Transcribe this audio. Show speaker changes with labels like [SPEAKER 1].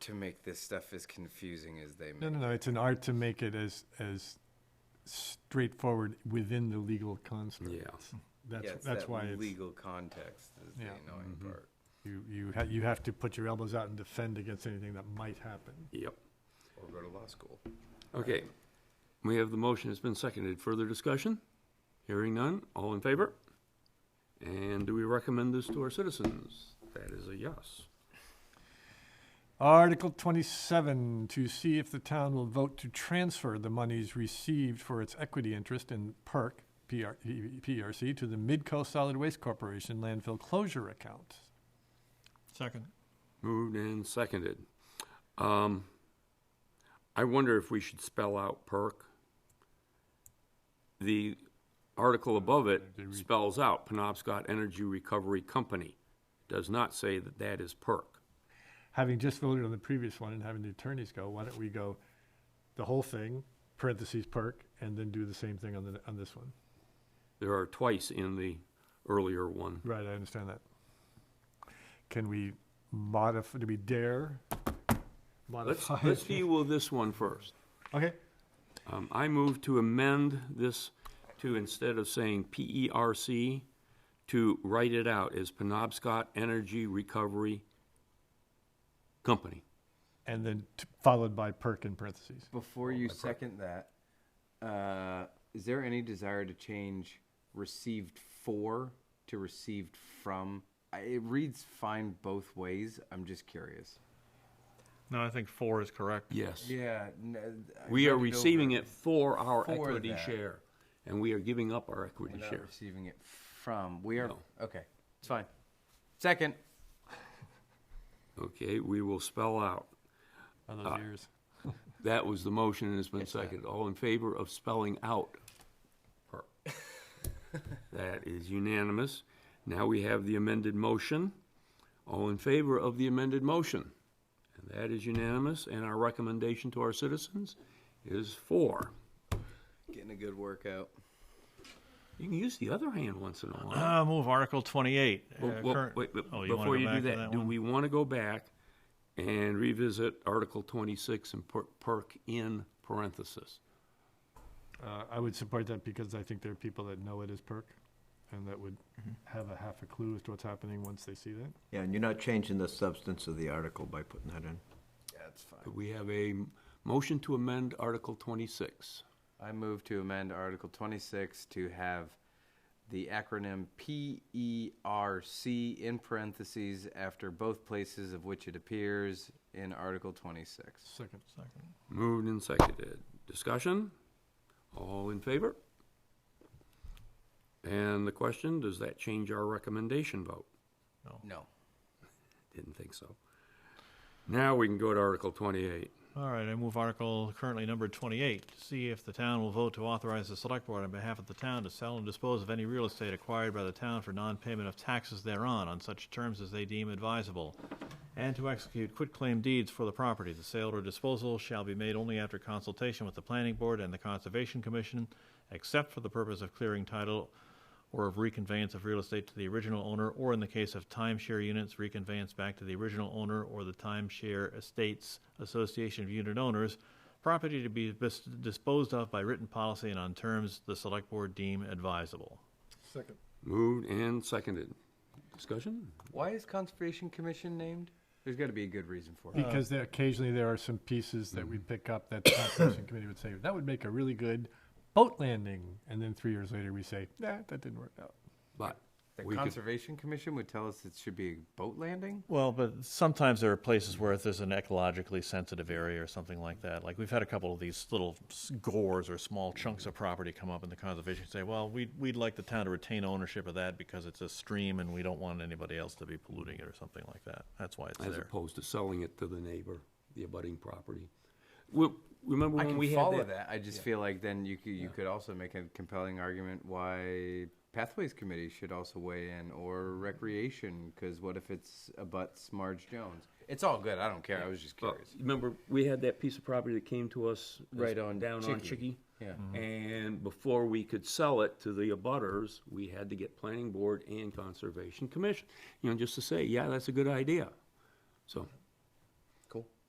[SPEAKER 1] to make this stuff as confusing as they
[SPEAKER 2] No,
[SPEAKER 1] make.
[SPEAKER 2] no, no, it's an art to make it as, as straightforward within the legal construct.
[SPEAKER 1] Yeah,
[SPEAKER 2] That's,
[SPEAKER 1] it's
[SPEAKER 2] that's
[SPEAKER 1] that
[SPEAKER 2] why it's,
[SPEAKER 1] Legal context is the
[SPEAKER 2] Yeah.
[SPEAKER 1] annoying part.
[SPEAKER 2] you, you ha you have to put your elbows out and defend against anything that might happen.
[SPEAKER 3] Yep.
[SPEAKER 1] Or go to law school.
[SPEAKER 3] Okay. We have the motion. It's been seconded. Further discussion? Hearing none. All in favor? And do we recommend this to our citizens? That is a yes.
[SPEAKER 2] Article twenty-seven, to see if the town will vote to transfer the monies received for its equity interest in PERC, PR, PRC, to the Midco Solid Waste Corporation landfill closure account.
[SPEAKER 4] Second.
[SPEAKER 3] Moved and seconded. Um, I wonder if we should spell out perk. The article above it spells out Penobscot Energy Recovery Company. Does not say that that is perk.
[SPEAKER 2] having just voted on the previous one and having the attorneys go, why don't we go the whole thing, parentheses perk, and then do the same thing on the, on this one?
[SPEAKER 3] There are twice in the earlier one.
[SPEAKER 2] Right, I understand that. Can we modify, do we dare
[SPEAKER 3] Let's,
[SPEAKER 2] modify?
[SPEAKER 3] let's deal with this one first.
[SPEAKER 2] Okay,
[SPEAKER 3] Um, I move to amend this to, instead of saying P-E-R-C, to write it out as Penobscot Energy Recovery Company.
[SPEAKER 2] and then t- followed by perk in parentheses.
[SPEAKER 1] Before you second that, uh, is there any desire to change received for to received from? I, it reads fine both ways. I'm just curious.
[SPEAKER 4] No, I think four is correct.
[SPEAKER 3] Yes.
[SPEAKER 1] Yeah. uh,
[SPEAKER 3] We are receiving it for our
[SPEAKER 1] For
[SPEAKER 3] equity
[SPEAKER 1] that.
[SPEAKER 3] share, and we are giving up our equity
[SPEAKER 1] We're not
[SPEAKER 3] share.
[SPEAKER 1] receiving it from. We are.
[SPEAKER 3] No.
[SPEAKER 1] Okay. It's fine. Second.
[SPEAKER 3] Okay, we will spell out. Uh,
[SPEAKER 2] On those years.
[SPEAKER 3] That was the motion and it's been seconded. All in favor of spelling out per? That is unanimous. Now we have the amended motion. All in favor of the amended motion? And that is unanimous, and our recommendation to our citizens is four.
[SPEAKER 1] Getting a good workout.
[SPEAKER 3] You can use the other hand once in a while.
[SPEAKER 4] Uh, move Article 28. uh,
[SPEAKER 3] Well, well,
[SPEAKER 4] current-
[SPEAKER 3] wait, but
[SPEAKER 4] Oh, wanna go
[SPEAKER 3] before you
[SPEAKER 4] back
[SPEAKER 3] do
[SPEAKER 4] to
[SPEAKER 3] that, do
[SPEAKER 4] one?
[SPEAKER 3] we want to go back and revisit Article twenty-six and per- perk in parentheses?
[SPEAKER 2] Uh, I would support that because I think there are people that know it is perk and that would
[SPEAKER 4] Mm-hmm.
[SPEAKER 2] have a half a clue as to what's happening once they see that.
[SPEAKER 5] Yeah, and you're not changing the substance of the article by putting that in.
[SPEAKER 1] That's fine.
[SPEAKER 3] We have a m- motion to amend Article twenty-six.
[SPEAKER 1] I move to amend Article 26 to have the acronym PERC in parentheses after both places of which it appears in Article 26.
[SPEAKER 2] Second.
[SPEAKER 4] Second.
[SPEAKER 3] Moved and seconded. Discussion? All in favor? And the question, does that change our recommendation vote?
[SPEAKER 1] No.
[SPEAKER 3] Didn't think so. Now we can go to Article twenty-eight.
[SPEAKER 4] All right, I move Article currently numbered 28, to see if the town will vote to authorize the Select Board on behalf of the town to sell and dispose of any real estate acquired by the town for non-payment of taxes thereon on such terms as they deem advisable, and to execute quitclaim deeds for the property. The sale or disposal shall be made only after consultation with the Planning Board and the Conservation Commission, except for the purpose of clearing title or of reconveyance of real estate to the original owner, or in the case of timeshare units, reconveyance back to the original owner or the timeshare estates association of unit owners, property to be bis- disposed of by written policy and on terms the select board deem advisable.
[SPEAKER 2] Second.
[SPEAKER 3] Moved and seconded. Discussion?
[SPEAKER 1] Why is Conservation Commission named? There's got to be a good reason for it.
[SPEAKER 2] Because there, occasionally there are some pieces that we pick up that the conservation committee would say, that would make a really good boat landing. And then three years later, we say, nah, that didn't work out.
[SPEAKER 3] But
[SPEAKER 1] The
[SPEAKER 3] we could
[SPEAKER 1] Conservation Commission would tell us it should be a boat landing?
[SPEAKER 4] Well, but sometimes there are places where if there's an ecologically sensitive area or something like that, like we've had a couple of these little s- gores or small chunks of property come up in the conservation, say, well, we'd, we'd like the town to retain ownership of that because it's a stream and we don't want anybody else to be polluting it or something like that. That's why it's
[SPEAKER 3] as
[SPEAKER 4] there.
[SPEAKER 3] opposed to selling it to the neighbor, the abutting property. Well, remember
[SPEAKER 1] I
[SPEAKER 3] when
[SPEAKER 1] can
[SPEAKER 3] we had
[SPEAKER 1] follow
[SPEAKER 3] that?
[SPEAKER 1] that. I just feel like then you could, you could also make a compelling argument why Pathways Committee should also weigh in or
[SPEAKER 3] Mm-hmm.
[SPEAKER 1] Recreation because what if it's abuts Marge Jones? It's all good. I don't care. I was just
[SPEAKER 3] Well,
[SPEAKER 1] curious.
[SPEAKER 3] Oh, Remember, we had that piece of property that came to us. as-
[SPEAKER 1] Right on
[SPEAKER 3] Down on
[SPEAKER 1] Chicky.
[SPEAKER 3] Chicky.
[SPEAKER 1] Yeah. Mm-hmm.
[SPEAKER 3] And before we could sell it to the abutters, we had to get planning board and conservation commission, you know, just to say, yeah, that's a good idea. So